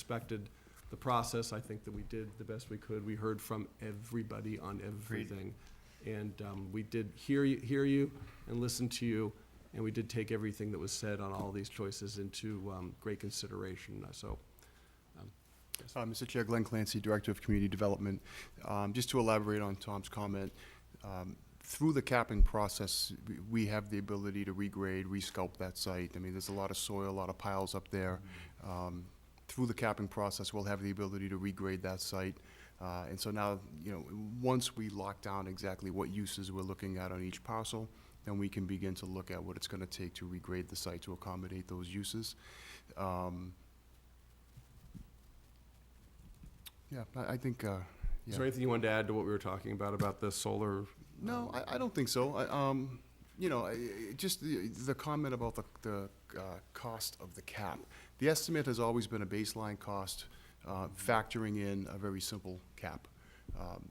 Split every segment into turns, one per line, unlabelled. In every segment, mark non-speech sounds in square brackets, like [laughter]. respected the process. I think that we did the best we could. We heard from everybody on everything. And um, we did hear you, hear you and listen to you, and we did take everything that was said on all these choices into um, great consideration. So
Uh, Mr. Chair, Glenn Clancy, Director of Community Development. Um, Just to elaborate on Tom's comment, um, through the capping process, we- we have the ability to regrade, resculpt that site. I mean, there's a lot of soil, a lot of piles up there. Um, Through the capping process, we'll have the ability to regrade that site. Uh, And so now, you know, once we lock down exactly what uses we're looking at on each parcel, then we can begin to look at what it's going to take to regrade the site to accommodate those uses. Um, Yeah, I I think, uh, yeah.
is there anything you wanted to add to what we were talking about, about the solar? um,
No, I, I don't think so. I, um, you know, I- I, just the, the comment about the, the, uh, cost of the cap. The estimate has always been a baseline cost, uh, factoring in a very simple cap. Um,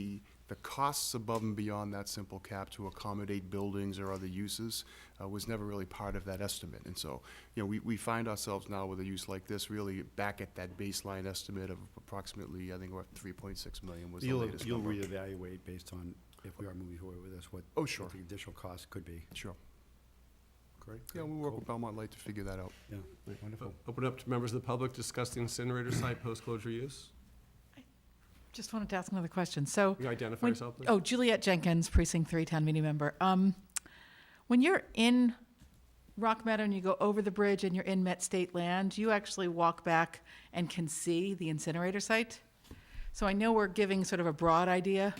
The, the costs above and beyond that simple cap to accommodate buildings or other uses, uh, was never really part of that estimate. And so, you know, we, we find ourselves now with a use like this really back at that baseline estimate of approximately, I think, what, three point six million was the
You'll,
latest
you'll
number.
reevaluate based on if we are moving forward with this, what.
Oh,
what
sure.
The additional cost could be,
Sure.
correct?
Yeah, we'll work with Belmont Light to figure that out.
Yeah, wonderful.
Open up to members of the public, discuss the incinerator site post-closure use.
Just wanted to ask another question. So,
Can you identify
When-
yourself, please?
oh, Juliet Jenkins, precinct three, town meeting member. Um, when you're in Rock Meadow and you go over the bridge and you're in Met State land, you actually walk back and can see the incinerator site. So I know we're giving sort of a broad idea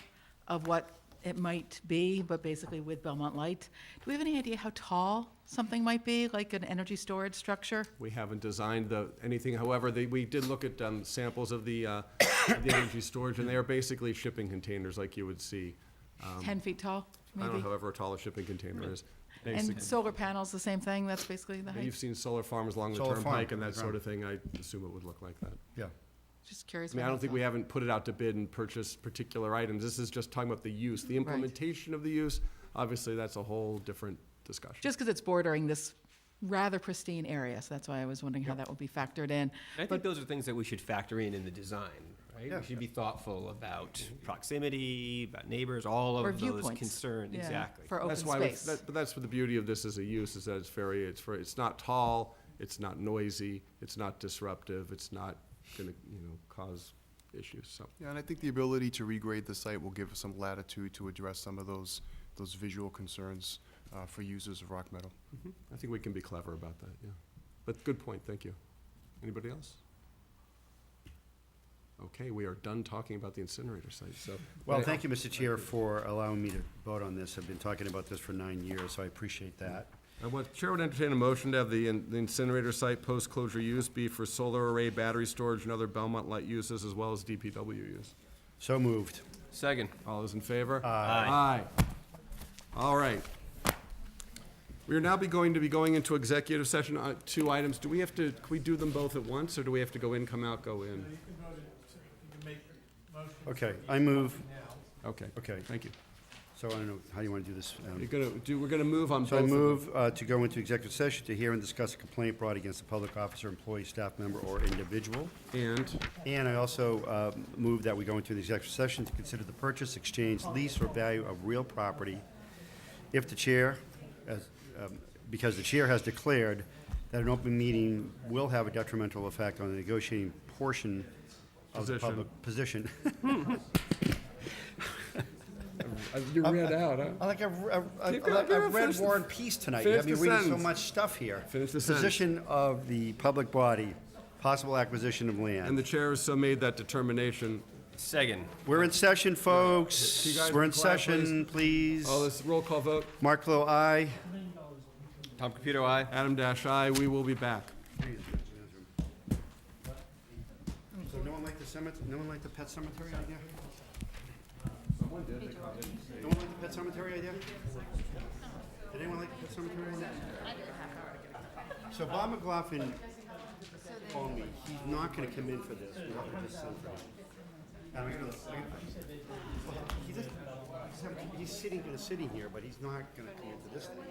of what it might be, but basically with Belmont Light. Do we have any idea how tall something might be, like an energy storage structure?
We haven't designed the, anything, however, they, we did look at, um, samples of the, uh, of the energy storage, and they are basically shipping containers like you would see. Um,
Ten feet tall,
I don't know
maybe?
however tall a shipping container is.
And
Basically,
solar panels, the same thing? That's basically the
And
height?
you've seen solar farms along the
Solar farm,
turnpike and that
right.
sort of thing, I assume it would look like that.
Yeah,
Just curious.
I mean, I
what
don't
you
think
thought.
we haven't put it out to bid and purchased particular items, this is just talking about the use, the implementation of the use, obviously, that's a whole different discussion.
Just because it's bordering this rather pristine area, so that's why I was wondering how that would be factored in.
I think
But-
those are things that we should factor in in the design, right?
Yeah.
We should be thoughtful about proximity, about neighbors, all
Or
of those
viewpoints.
concerns,
Yeah,
exactly.
For open
That's why, we-
space.
that- but that's what the beauty of this as a use, is that it's very, it's very, it's not tall, it's not noisy, it's not disruptive, it's not gonna, you know, cause issues, so.
Yeah, and I think the ability to regrade the site will give us some latitude to address some of those, those visual concerns uh, for users of Rock Meadow.
I think we can be clever about that, yeah. But good point, thank you. Anybody else? Okay, we are done talking about the incinerator site, so.
well, thank you, Mr. Chair, for allowing me to vote on this. I've been talking about this for nine years, so I appreciate that.
I want, Chair would entertain a motion to have the in- the incinerator site post-closure use be for solar array, battery storage, and other Belmont light uses, as well as DPW use.
So moved.
Second.
All those in favor?
Aye.
Aye. All right. We are now be going to be going into executive session, uh, two items. Do we have to, can we do them both at once, or do we have to go in, come out, go in?
Okay, I move,
Okay,
okay,
thank you.
so I don't know, how do you want to do this? um,
You're gonna, do, we're gonna move on both
So I
of them.
move uh, to go into executive session to hear and discuss a complaint brought against a public officer, employee, staff member, or individual.
And,
And I also uh, move that we go into an executive session to consider the purchase, exchange, lease, or value of real property if the chair, as, um, because the chair has declared that an open meeting will have a detrimental effect on the negotiating portion of the
Position.
public position.
uh,
[laughs]
you read out, huh?
I Like, I've, I've-
Keep going,
I've, I've,
keep
I've
going,
read
finish the-
War and Peace tonight.
finish
I've been
the
reading so
sentence.
much stuff here.
Finish the sentence.
Position of the public body, possible acquisition of
And the
land.
chair has so made that determination.
Second.
We're in session, folks.
you guys
We're in
be quiet,
session, please.
All this roll call vote,
Mark Low, aye.
Tom Computer, aye.
Adam Dash, aye, we will be back.
So no one liked the cemetery, no one liked the pet cemetery idea? No one liked the pet cemetery idea? Did anyone like the pet cemetery idea? So Bob McLaughlin told me he's not gonna come in for this, we're not gonna just send him. He doesn't- he's not- He's sitting, gonna sitting here, but he's not gonna come into this thing.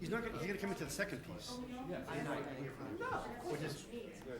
He's not gonna, he's gonna come into the second piece. He's not gonna hear from it, Which is,